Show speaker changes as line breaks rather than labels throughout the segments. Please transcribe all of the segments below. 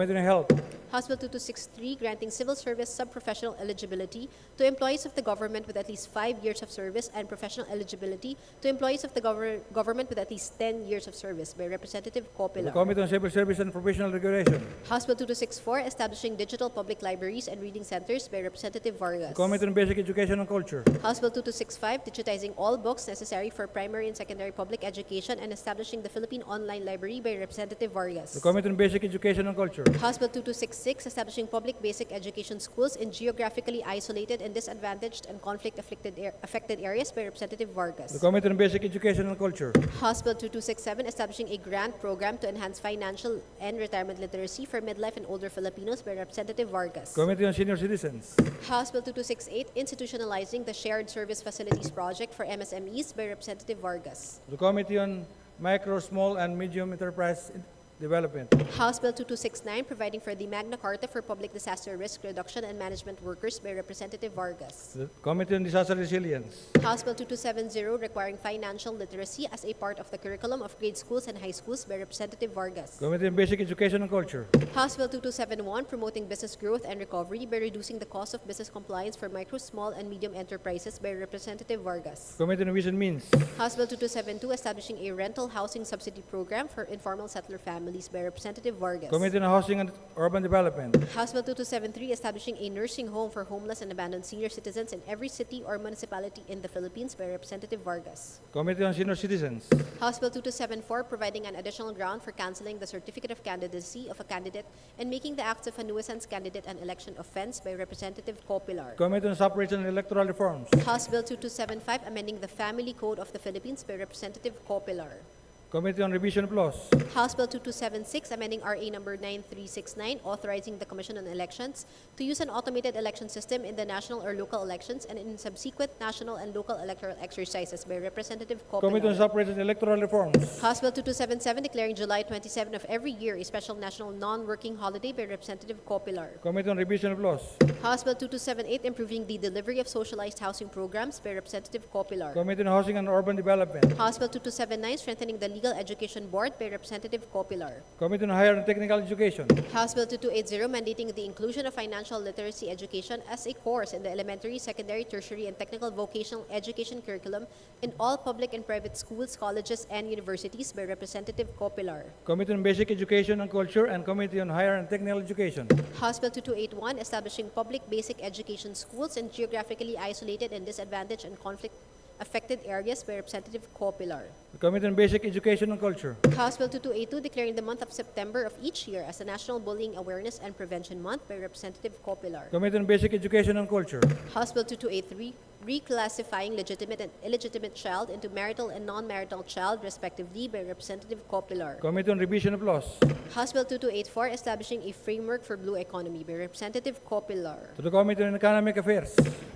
Committee on Health,
House Bill 2263, granting civil service subprofessional eligibility to employees of the government with at least five years of service and professional eligibility to employees of the gover- government with at least 10 years of service by Representative
the
Coppilar.
Committee on Civil Service and Professional Regulation,
House Bill 2264, establishing digital public libraries and reading centers by Representative Vargas.
the Committee on Basic Education and Culture,
House Bill 2265, digitizing all books necessary for primary and secondary public education and establishing the Philippine Online Library by Representative Vargas.
the Committee on Basic Education and Culture,
House Bill 2266, establishing public basic education schools in geographically isolated and disadvantaged and conflict-afflicted ar- affected areas by Representative
the
Vargas.
Committee on Basic Education and Culture,
House Bill 2267, establishing a grant program to enhance financial and retirement literacy for midlife and older Filipinos by Representative Vargas.
Committee on Senior Citizens,
House Bill 2268, institutionalizing the Shared Service Facilities Project for MSMEs by Representative Vargas.
the Committee on Micro, Small, and Medium Enterprise Development,
House Bill 2269, providing for the Magna Carta for Public Disaster Risk Reduction and Management Workers by Representative Vargas.
the Committee on Disaster Resilience,
House Bill 2270 requiring financial literacy as a part of the curriculum of grade schools and high schools by Representative Vargas.
Committee on Basic Education and Culture,
House Bill 2271 promoting business growth and recovery by reducing the cost of business compliance for micro, small, and medium enterprises by Representative Vargas.
Committee on Ways and Means,
House Bill 2272 establishing a rental housing subsidy program for informal settler families by Representative Vargas.
Committee on Housing and Urban Development,
House Bill 2273 establishing a nursing home for homeless and abandoned senior citizens in every city or municipality in the Philippines by Representative Vargas.
Committee on Senior Citizens,
House Bill 2274, providing an additional ground for canceling the certificate of candidacy of a candidate and making the acts of a nuisance candidate an election offense by Representative Copilar.
Committee on Separation and Electoral Reforms,
House Bill 2275, amending the Family Code of the Philippines by Representative Copilar.
Committee on Revision of Laws,
House Bill 2276, amending RA number 9369, authorizing the Commission on Elections to use an automated election system in the national or local elections and in subsequent national and local electoral exercises by Representative Copilar.
Committee on Separation and Electoral Reforms,
House Bill 2277 declaring July 27 of every year a special national non-working holiday by Representative Copilar.
Committee on Revision of Laws,
House Bill 2278 improving the delivery of socialized housing programs by Representative Copilar.
Committee on Housing and Urban Development,
House Bill 2279 strengthening the legal education board by Representative Copilar.
Committee on Higher and Technical Education,
House Bill 2280 mandating the inclusion of financial literacy education as a course in the elementary, secondary, tertiary, and technical vocational education curriculum in all public and private schools, colleges, and universities by Representative Copilar.
Committee on Basic Education and Culture, and Committee on Higher and Technical Education,
House Bill 2281, establishing public basic education schools in geographically isolated and disadvantaged and conflict-affected areas by Representative Copilar.
Committee on Basic Education and Culture,
House Bill 2282, declaring the month of September of each year as a National Bullying Awareness and Prevention Month by Representative Copilar.
Committee on Basic Education and Culture,
House Bill 2283, reclassifying legitimate and illegitimate child into marital and non-marital child respectively by Representative Copilar.
Committee on Revision of Laws,
House Bill 2284, establishing a framework for blue economy by Representative Copilar.
to the Committee on Economic Affairs,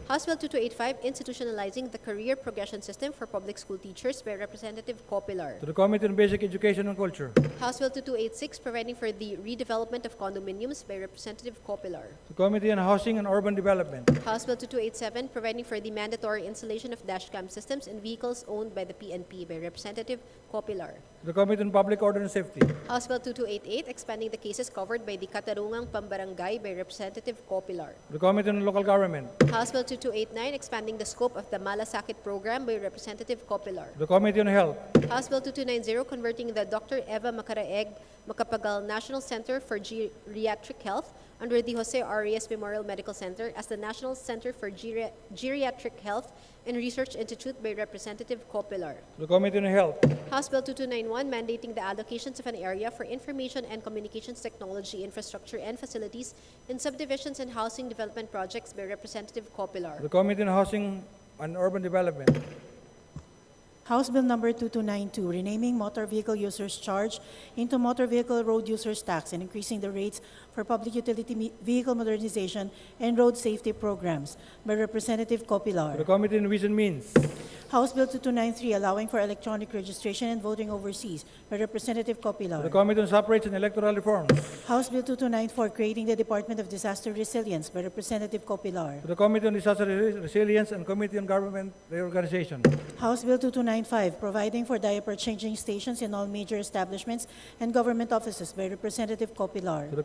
House Bill 2285, institutionalizing the career progression system for public school teachers by Representative Copilar.
to the Committee on Basic Education and Culture, to
House Bill 2286, providing for the redevelopment of condominiums by Representative Copilar.
the Committee on Housing and Urban Development,
House Bill 2287, providing for the mandatory installation of dashcam systems in vehicles owned by the PNP by Representative Copilar.
to the Committee on Public Order and Safety,
House Bill 2288, expanding the cases covered by the Katarungang Pambarangay by Representative Copilar.
to the Committee on Local Government,
House Bill 2289, expanding the scope of the Malasakit program by Representative Copilar.
to the Committee on Health,
House Bill 2290 converting the Dr. Eva Macaraeg Macapagal National Center for Geriatric Health under the Jose Arias Memorial Medical Center as the National Center for Geria- Geriatric Health and Research Institute by Representative Copilar.
to the Committee on Health,
House Bill 2291 mandating the allocations of an area for information and communications technology infrastructure and facilities in subdivisions and housing development projects by Representative Copilar.
to the Committee on Housing and Urban Development,
House Bill Number 2292, renaming motor vehicle users charge into motor vehicle road users tax and increasing the rates for public utility me- vehicle modernization and road safety programs by Representative
to the
Copilar.
Committee on Ways and Means,
House Bill 2293, allowing for electronic registration and voting overseas by Representative
to the
Copilar.
Committee on Separation and Electoral Reforms,
House Bill 2294, creating the Department of Disaster Resilience by Representative Copilar.
To the Committee on Disaster Resi- Resilience and Committee on Government Reorganization. To
House Bill 2295, providing for diaper changing stations in all major establishments and government offices by Representative Copilar.
the